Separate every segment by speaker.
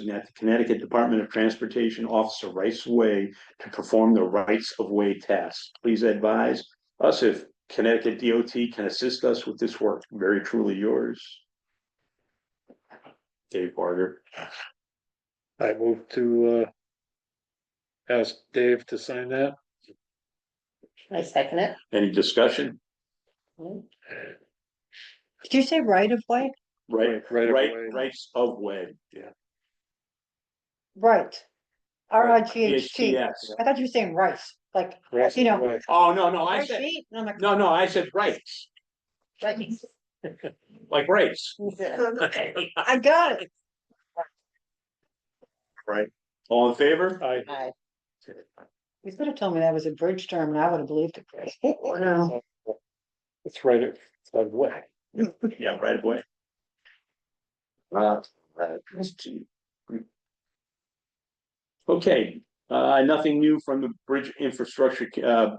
Speaker 1: that the Connecticut Department of Transportation Officer Rights of Way to perform the rights of way task. Please advise us if Connecticut DOT can assist us with this work. Very truly yours. Dave Barger.
Speaker 2: I move to uh. Ask Dave to sign that.
Speaker 3: I second it.
Speaker 1: Any discussion?
Speaker 3: Did you say right of way?
Speaker 1: Right,
Speaker 2: Right
Speaker 1: right,
Speaker 2: away.
Speaker 1: rights of way.
Speaker 3: Right. R I
Speaker 1: Right.
Speaker 3: G H T. I
Speaker 1: PHTS.
Speaker 3: thought you were saying rice, like,
Speaker 2: Right
Speaker 3: you know,
Speaker 2: away.
Speaker 1: Oh, no, no, I
Speaker 3: rice
Speaker 1: said,
Speaker 3: feet, and I'm like,
Speaker 1: no, no, I said rights,
Speaker 3: rice.
Speaker 1: like rights.
Speaker 3: I got it.
Speaker 1: Right. All in favor?
Speaker 2: I,
Speaker 3: Hi. You could have told me that was a bridge term and I would have believed it. Oh, No.
Speaker 2: it's right of right away.
Speaker 1: Yeah, right away. Uh, uh, let's see. Okay, uh, nothing new from the Bridge Infrastructure, uh,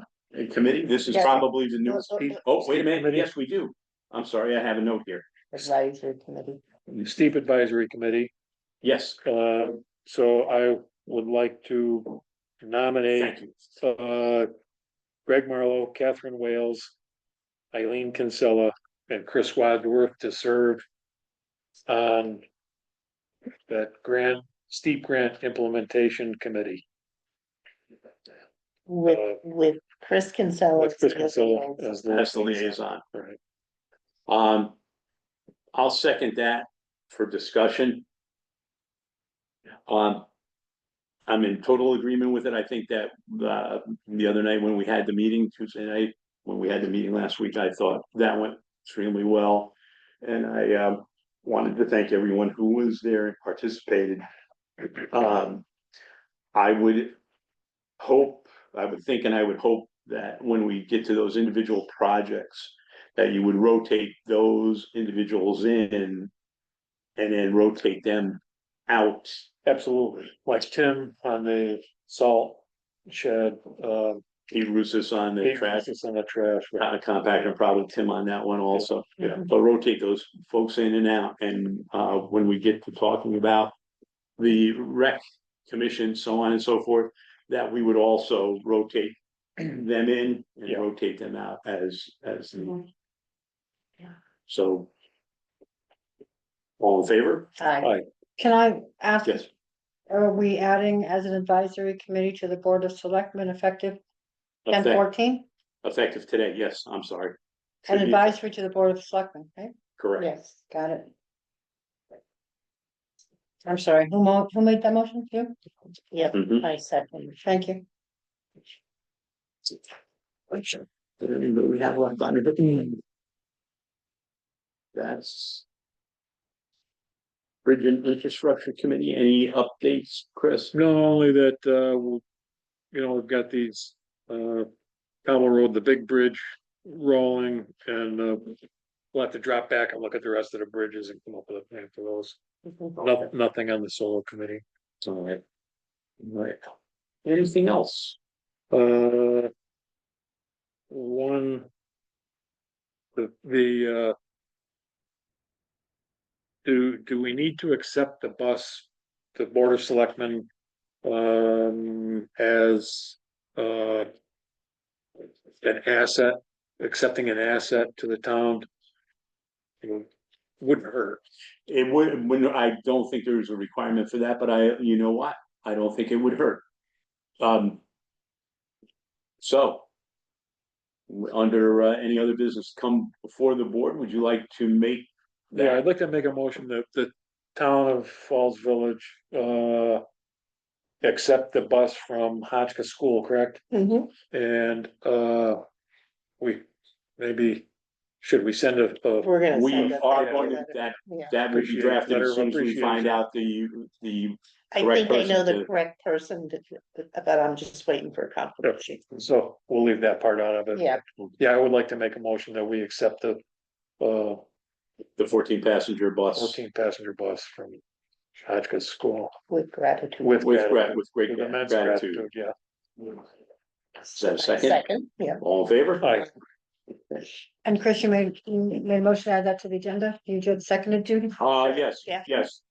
Speaker 1: Committee. This is
Speaker 3: Yeah.
Speaker 1: probably the newest piece. Oh, wait a minute.
Speaker 2: Committee.
Speaker 1: Yes, we do. I'm sorry, I have a note here.
Speaker 3: Advisory committee.
Speaker 2: Steep Advisory Committee,
Speaker 1: Yes,
Speaker 2: uh, so I would like to nominate
Speaker 1: thank you.
Speaker 2: uh. Greg Marlowe, Catherine Wales, Eileen Kinsella, and Chris Wadsworth to serve. On. That grant, steep grant implementation committee.
Speaker 3: With,
Speaker 2: Uh,
Speaker 3: with Chris Kinsella.
Speaker 2: With Chris Kinsella as the.
Speaker 1: That's the liaison.
Speaker 2: Right.
Speaker 1: Um, I'll second that for discussion. Um, I'm in total agreement with it. I think that, uh, the other night when we had the meeting Tuesday night, when we had the meeting last week, I thought that went extremely well. And I, um, wanted to thank everyone who was there and participated. Um, I would hope, I would think, and I would hope that when we get to those individual projects, that you would rotate those individuals in and then rotate them out.
Speaker 2: Absolutely, like Tim on the salt shed, uh.
Speaker 1: He roots us on the trash, Uh,
Speaker 2: It's on the trash. right.
Speaker 1: kind of compact, and probably Tim on that one also.
Speaker 2: Yeah.
Speaker 1: So rotate those folks in and out, and uh, when we get to talking about the rec commission, so on and so forth, that we would also rotate them in and
Speaker 2: Yeah. Mm-hmm.
Speaker 1: rotate them out as, as, the-
Speaker 4: Mm-hmm.
Speaker 3: Mhm. Yeah.
Speaker 1: so. All in favor?
Speaker 3: Hi.
Speaker 2: Aye.
Speaker 3: Can I
Speaker 2: Uh,
Speaker 3: ask,
Speaker 1: Yes.
Speaker 3: are we adding as an advisory committee to the Board of Selectmen effective ten
Speaker 1: Effect-
Speaker 3: fourteen?
Speaker 1: Effective today, yes, I'm sorry. Should
Speaker 3: An
Speaker 1: be
Speaker 3: advisory to the Board of Selectmen, right?
Speaker 1: Correct.
Speaker 3: Yes, got it. I'm sorry, who mo- who made that motion, you? Yep,
Speaker 1: Mhm.
Speaker 3: I second. Thank you.
Speaker 4: Mm-hmm.
Speaker 1: We have left on it. That's. Bridge and Infrastructure Committee, any updates, Chris?
Speaker 2: No, only that, uh, we'll- you know, we've got these, uh, Powell Road, the big bridge rolling and, uh. We'll have to drop back and look at the rest of the bridges and come up with a plan for those. No- Nothing on the solo committee.
Speaker 1: All right. All right. Anything else?
Speaker 2: Uh. One. The, the, uh. Do, do we need to accept the bus, the board of selectmen, um, as, uh. An asset, accepting an asset to the town? You know, Wouldn't hurt.
Speaker 1: It would, when, I don't think there's a requirement for that, but I, you know what, I don't think it would hurt. Um. So. w- Under uh, any other business come before the board, would you like to make?
Speaker 2: Yeah, I'd like to make a motion that the town of Falls Village, uh. Accept the bus from Hotchkiss School, correct?
Speaker 3: Mhm.
Speaker 2: And, uh. We, maybe, should we send a, a,
Speaker 3: We're gonna.
Speaker 1: We
Speaker 3: send a-
Speaker 1: are going to, that,
Speaker 3: Yeah.
Speaker 1: that would be
Speaker 2: Appreciate-
Speaker 1: drafted
Speaker 2: letter
Speaker 1: as
Speaker 2: of
Speaker 1: soon as we find
Speaker 2: appreciation.
Speaker 1: out the, the,
Speaker 4: I
Speaker 1: correct
Speaker 4: think I know
Speaker 1: person
Speaker 4: the
Speaker 1: to-
Speaker 4: correct person, but- but I'm just waiting for a confirmation.
Speaker 2: so we'll leave that part out of it.
Speaker 4: Yeah.
Speaker 2: Yeah, I would like to make a motion that we accept the, uh,
Speaker 1: the fourteen passenger bus.
Speaker 2: fourteen passenger bus from Hotchkiss School.
Speaker 4: With gratitude.
Speaker 2: With
Speaker 1: With grat,
Speaker 2: gratitude.
Speaker 1: with great
Speaker 2: With immense
Speaker 1: gratitude.
Speaker 2: gratitude, yeah.
Speaker 1: Is that a second?
Speaker 4: Yeah.
Speaker 1: All in favor?
Speaker 2: Aye.
Speaker 3: And Chris, you made, you made a motion to add that to the agenda, you just seconded Judy?
Speaker 1: Uh, yes,
Speaker 4: Yeah.
Speaker 1: yes,